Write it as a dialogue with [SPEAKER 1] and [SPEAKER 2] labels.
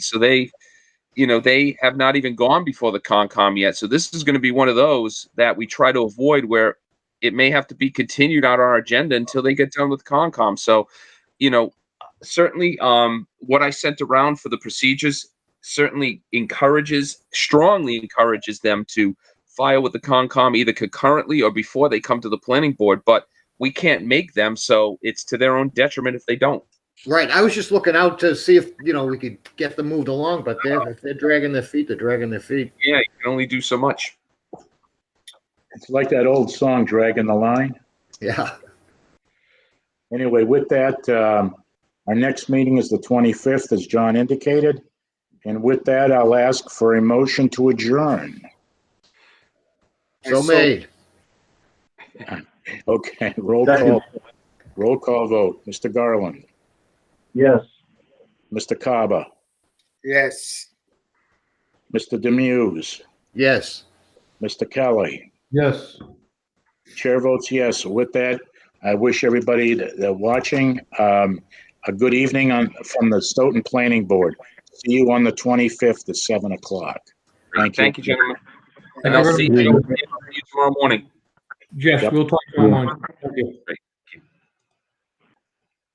[SPEAKER 1] So they, you know, they have not even gone before the Concom yet. So this is going to be one of those that we try to avoid where it may have to be continued on our agenda until they get done with Concom. So, you know, certainly um, what I sent around for the procedures certainly encourages, strongly encourages them to file with the Concom either concurrently or before they come to the planning board. But we can't make them, so it's to their own detriment if they don't.
[SPEAKER 2] Right, I was just looking out to see if, you know, we could get them moved along, but they're, if they're dragging their feet, they're dragging their feet.
[SPEAKER 1] Yeah, you can only do so much.
[SPEAKER 3] It's like that old song, Dragging the Line.
[SPEAKER 2] Yeah,
[SPEAKER 3] Anyway, with that, um, our next meeting is the 25th, as John indicated. And with that, I'll ask for a motion to adjourn.
[SPEAKER 2] so made.
[SPEAKER 3] Okay, roll call, roll call vote. Mr. Garland,
[SPEAKER 4] Yes.
[SPEAKER 3] Mr. Kaba,
[SPEAKER 5] Yes.
[SPEAKER 3] Mr. Demuse,
[SPEAKER 2] Yes.
[SPEAKER 3] Mr. Kelly.
[SPEAKER 4] Yes.
[SPEAKER 3] Chair votes yes. With that, I wish everybody that that watching um, a good evening on, from the Stoughton Planning Board. See you on the 25th at 7 o'clock. Thank you.
[SPEAKER 1] Thank you, gentlemen. And I'll see you
[SPEAKER 4] Thank you.
[SPEAKER 1] tomorrow morning.
[SPEAKER 4] Jeff,
[SPEAKER 3] Yep.
[SPEAKER 4] we'll talk to you tomorrow. Thank you.
[SPEAKER 1] Great.